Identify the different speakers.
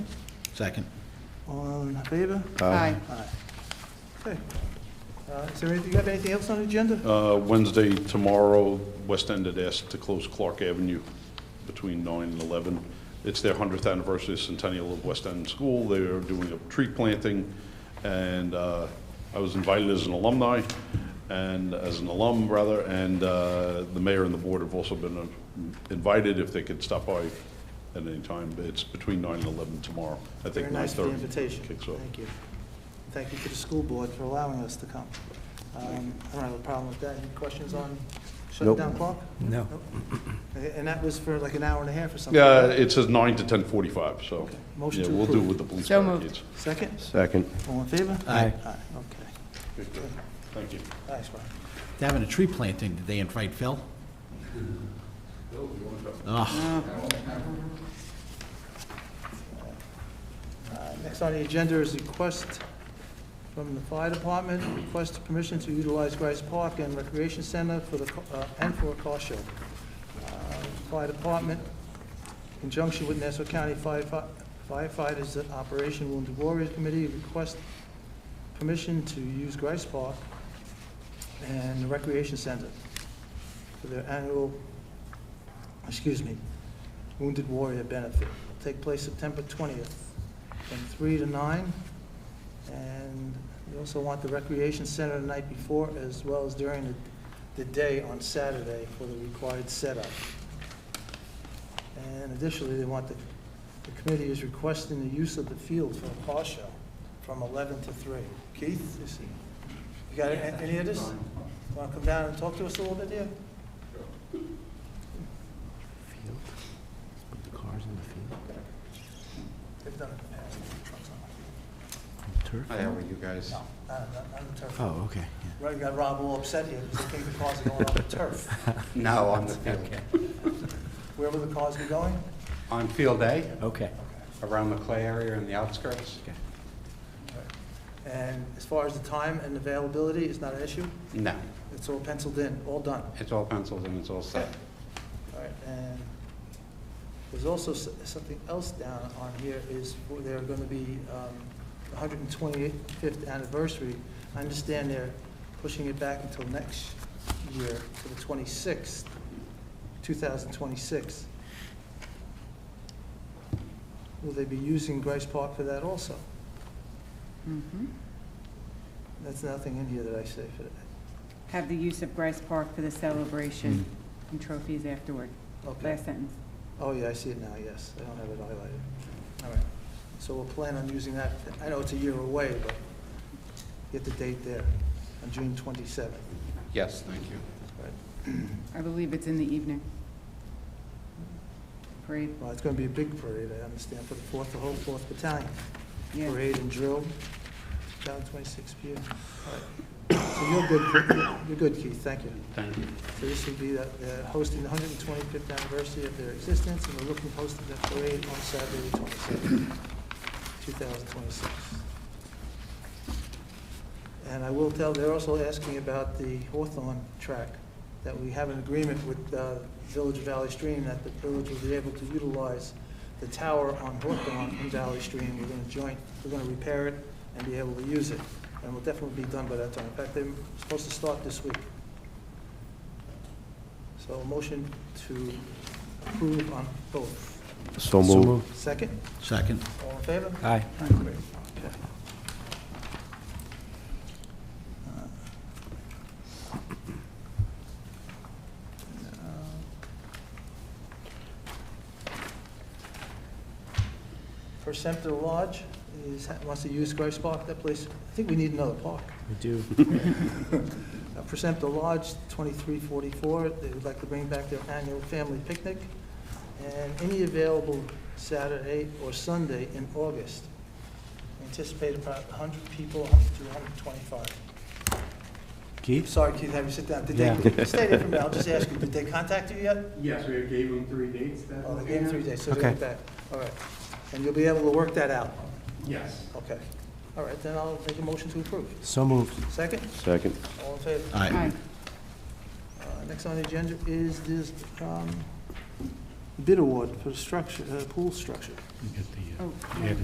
Speaker 1: Second.
Speaker 2: All in favor?
Speaker 3: Aye.
Speaker 2: Okay. Uh, Is there anything, you have anything else on the agenda?
Speaker 4: Uh, Wednesday, tomorrow, West End had asked to close Clark Avenue between 9 and 11. It's their 100th anniversary centennial of West End School. They are doing a tree planting, and uh, I was invited as an alumni, and as an alum, rather, and uh, the mayor and the board have also been uh, invited if they could stop by at any time. It's between 9 and 11 tomorrow. I think 9:30.
Speaker 2: Very nice for the invitation.
Speaker 4: kicks off.
Speaker 2: Thank you. Thank you to the school board for allowing us to come. Um, I don't have a problem with that. Any questions on shutting
Speaker 3: Nope.
Speaker 2: down Clark?
Speaker 3: No.
Speaker 2: Nope. A- And that was for like an hour and a half or something?
Speaker 4: Yeah, it says 9 to 10:45, so,
Speaker 2: Okay. Motion
Speaker 4: yeah,
Speaker 2: to
Speaker 4: we'll do
Speaker 2: approve.
Speaker 4: with the police
Speaker 3: So moved.
Speaker 4: barricades.
Speaker 2: Second?
Speaker 5: Second.
Speaker 2: All in favor?
Speaker 1: Aye.
Speaker 2: Aye, okay.
Speaker 4: Good, good. Thank you.
Speaker 2: Nice, Rob.
Speaker 1: They're having a tree planting, did they invite Phil? Oh,
Speaker 2: Uh, Next on the agenda is request from the fire department, request permission to utilize Rice Park and Recreation Center for the, co- uh, and for a car show. Uh, Fire department, in conjunction with Nassau County Firefi- firefighters Operation Wounded Warriors Committee, request permission to use Rice Park and the Recreation Center for their annual, excuse me, Wounded Warrior Benefit. It'll Take place September 20th from three to nine. And we also want the recreation center the night before as well as during the, the day on Saturday for the required setup. And additionally, they want the, the committee is requesting the use of the field for a car show from eleven to three. Keith, you see, you got a- any of this? Want to come down and talk to us a little bit here?
Speaker 3: Put the cars in the field.
Speaker 2: They've done it in the past. Trucks on.
Speaker 3: Turf?
Speaker 5: Hi, how are you guys?
Speaker 2: No, not, not- not the turf.
Speaker 3: Oh, okay.
Speaker 2: Right, you got Rob all upset here because he thinks the cars are going off the turf.
Speaker 5: No, on the field.
Speaker 2: Where will the cars be going?
Speaker 5: On field A,
Speaker 3: Okay.
Speaker 5: around the clay area and the outskirts?
Speaker 2: And as far as the time and availability, it's not an issue?
Speaker 5: No,
Speaker 2: It's all penciled in, all done?
Speaker 5: it's all pencils and it's all set.
Speaker 2: All right, and there's also s- something else down on here is for- they're going to be um, 125th anniversary. I understand they're pushing it back until next year to the 26th, 2026. Will they be using Grace Park for that also?
Speaker 6: Mhm.
Speaker 2: That's nothing in here that I say for that.
Speaker 6: Have the use of Grace Park for the celebration and trophies afterward.
Speaker 2: Okay.
Speaker 6: Last sentence.
Speaker 2: Oh, yeah, I see it now, yes. I don't have it highlighted. All right. So we'll plan on using that. I know it's a year away, but get the date there, on June 27th.
Speaker 5: Yes, thank you.
Speaker 6: I believe it's in the evening. Parade,
Speaker 2: Well, it's going to be a big parade, I understand, for the 4th, the whole 4th Battalion.
Speaker 6: yeah.
Speaker 2: Parade and drill, down 26 p.m. All right. So you're good, you're good, Keith, thank you.
Speaker 5: Thank you.
Speaker 2: So this will be, the- they're hosting the 125th anniversary of their existence, and they're looking to host the parade on Saturday, the 27th, 2026. And I will tell, they're also asking about the Hawthorne track, that we have an agreement with uh, Village of Valley Stream, that the village will be able to utilize the tower on Hawthorne in Valley Stream. We're going to joint, we're going to repair it and be able to use it, and we'll definitely be done by that time. In fact, they're supposed to start this week. So a motion to approve on both.
Speaker 5: So
Speaker 2: Second,
Speaker 1: second.
Speaker 2: all in favor?
Speaker 3: Aye.
Speaker 2: Okay. Uh, Perceptor Lodge is, wants to use Grace Park, that place, I think we need another park.
Speaker 3: We do.
Speaker 2: Uh, Present the Lodge, 2344, they would like to bring back their annual family picnic, and any available Saturday or Sunday in August. Anticipate about 100 people, 100 to 125. I'm
Speaker 3: Keith?
Speaker 2: sorry, Keith, have you sit down. Did they, stay there for a minute, I'll just ask you, did they contact you yet?
Speaker 7: Yes, we gave them three dates that.
Speaker 2: Oh, they gave you three days, so they'll
Speaker 3: Okay.
Speaker 2: be back. All right. And you'll be able to work that out?
Speaker 7: Yes.
Speaker 2: Okay. All right, then I'll make a motion to approve.
Speaker 3: So moved.
Speaker 2: Second?
Speaker 5: Second.
Speaker 2: All in favor?
Speaker 1: Aye.
Speaker 6: Aye.
Speaker 2: Uh, Next on the agenda is this um, bid award for the structure, uh, pool structure.
Speaker 6: Oh, yeah.